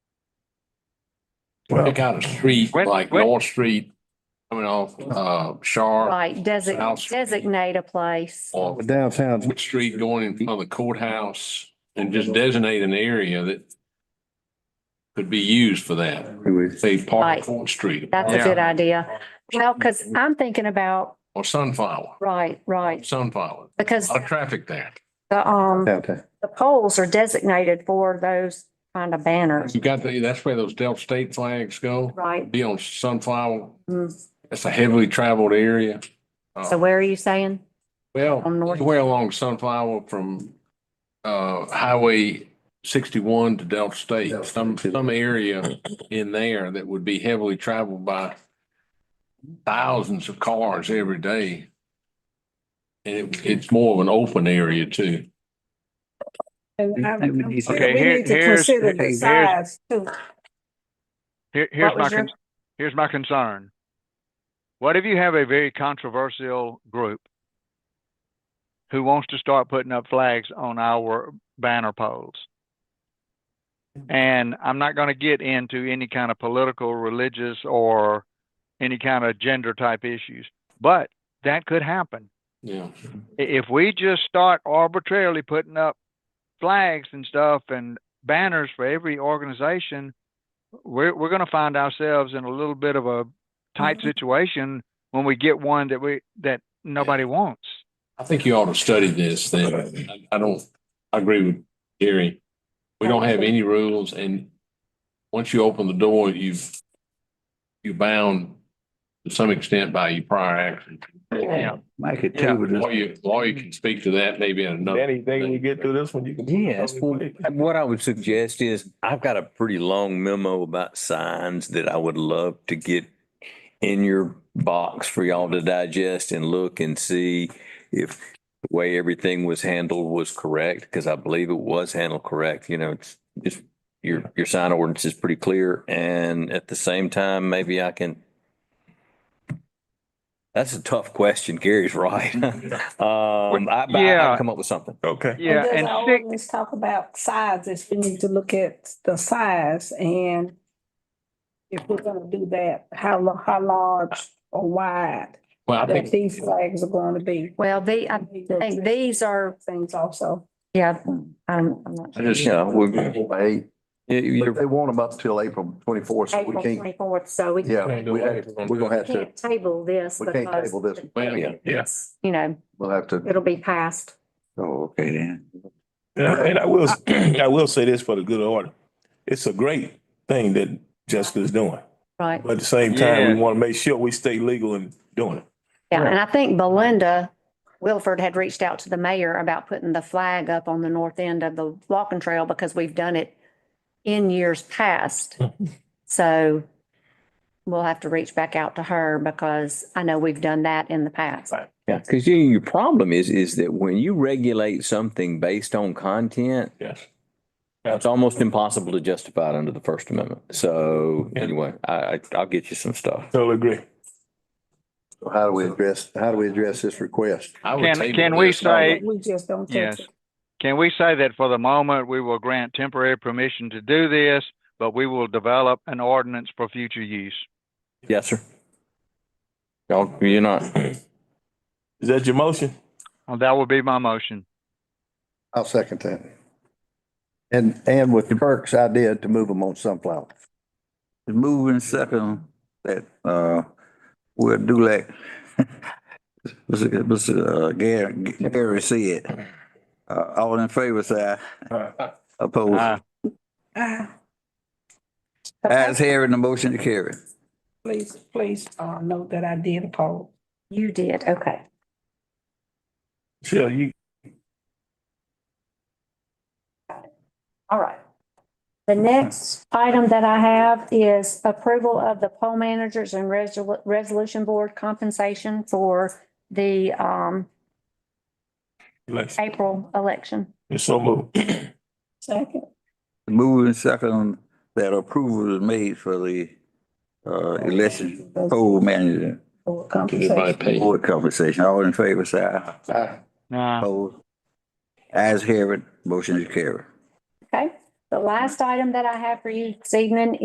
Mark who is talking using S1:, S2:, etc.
S1: pick out a street
S2: When-
S1: like
S2: when-
S1: North Street coming off, uh, Shar,
S3: Right,
S1: South
S3: designate,
S1: Street.
S3: designate a place.
S1: or
S4: Downtown's
S1: which street going in front of the courthouse and just designate an area that could be used for that. Say Park
S3: Right.
S1: Court Street
S3: That's a
S2: Yeah.
S3: good idea. Well, because I'm thinking about,
S1: or Sunflower,
S3: right, right,
S1: Sunflower, a
S3: because
S1: lot of traffic there.
S3: the, um,
S4: downtown.
S3: the poles are designated for those kind of banners,
S1: You got the, that's where those Delta State flags go,
S3: right?
S1: be on Sunflower.
S3: Mm.
S1: That's a heavily traveled area. Uh,
S3: So where are you saying?
S1: Well,
S3: On North-
S1: anywhere along Sunflower from uh Highway sixty-one to Delta State, some some area in there that would be heavily traveled by thousands of cars every day. And it it's more of an open area too.
S5: And I'm-
S6: Maybe
S5: I'm
S6: these-
S5: sure
S2: Mm-hmm. Okay,
S5: we
S2: here-
S5: need to
S2: here's-
S5: consider the
S2: here's-
S5: size too.
S2: Here, here's
S3: What
S2: my,
S3: was your-
S2: con- here's my concern. What if you have a very controversial group who wants to start putting up flags on our banner poles?
S3: Mm-hmm.
S2: And I'm not gonna get into any kind of political, religious, or any kind of gender type issues, but that could happen.
S1: Yeah.
S2: I- if we just start arbitrarily putting up flags and stuff and banners for every organization, we're we're going to find ourselves in a little bit of a tight situation when we get one that we that nobody wants.
S1: I think you ought to study this then. I- I don't, I agree with Gary. We don't have any rules and once you open the door, you've, you're bound to some extent by your prior action.
S2: Yeah.
S6: Make it
S1: Yeah,
S6: two. with this-
S1: lawyer, lawyer can speak to that maybe in another.
S7: Anything we get through this one, you can.
S6: Yes, well, what I would suggest is, I've got a pretty long memo about signs that I would love to get in your box for y'all to digest and look and see if the way everything was handled was correct, because I believe it was handled correct, you know, it's, it's, your, your sign ordinance is pretty clear, and at the same time, maybe I can that's a tough question. Gary's right. Um, I, I
S2: Yeah.
S6: I'll come up with something.
S7: Okay.
S2: Yeah,
S5: Does
S2: and
S5: our
S2: six,
S5: ordinance talk about sizes? We need to look at the size and if we're gonna do that, how lo- how large or wide
S1: Well, I
S5: that
S1: think,
S5: these flags are going to be.
S3: Well, the, I think these are,
S5: Things also.
S3: yeah, I'm, I'm not.
S1: I just,
S6: You know, we,
S4: Hey,
S6: you-
S4: they want them up till April twenty-fourth, so we
S3: April
S4: can't,
S3: twenty-fourth, so we
S4: yeah, we have- we're gonna have to,
S3: can't table this
S4: we can't
S3: because,
S4: table this.
S1: well,
S6: Yeah.
S7: Yeah.
S3: you know,
S4: We'll have to,
S3: it'll be passed.
S6: oh, okay then.
S7: And I will, I will say this for the good order. It's a great thing that Jessica's doing,
S3: Right.
S7: but at the same time, we
S2: Yeah.
S7: want to make sure we stay legal in doing it.
S3: Yeah, and I think Belinda Wilford had reached out to the mayor about putting the flag up on the north end of the walking trail because we've done it in years past. So we'll have to reach back out to her because I know we've done that in the past.
S6: Yeah, because you, your problem is, is that when you regulate something based on content,
S7: Yes.
S6: it's almost impossible to justify it under the First Amendment. So
S7: Yeah.
S6: anyway, I, I, I'll get you some stuff.
S7: Totally agree.
S4: so how do we address, how do we address this request?
S1: I would
S2: can
S1: table
S2: can we
S1: this.
S2: say
S5: We just don't touch
S2: Yes.
S5: it.
S2: Can we say that for the moment, we will grant temporary permission to do this, but we will develop an ordinance for future use?
S6: Yes, sir. Y'all, you're not,
S7: Is that your motion?
S2: And That will be my motion.
S4: I'll second that. And, and with Kirk's idea to move them on Sunflower.
S8: Moving second that, uh, we'll do like, Mr. Mr. uh, Gary, Gary said, uh, all in favor, say aye.
S2: Uh,
S8: Opposed.
S5: Ah,
S8: Ayes, hearing the motion to carry.
S5: Please, please, uh, note that I did oppose.
S3: You did, okay.
S7: Sure, you,
S3: All right. The next item that I have is approval of the poll managers and resol- resolution board compensation for the um
S7: election.
S3: April election.
S7: It's so moved.
S5: Second,
S8: Moving second that approval is made for the, uh, election poll manager
S5: for
S1: Everybody
S5: compensation.
S1: pay.
S8: board compensation. All in favor, say aye.
S2: nah.
S8: Opposed. Ayes, hearing, motion to carry.
S3: Okay? The last item that I have for you this evening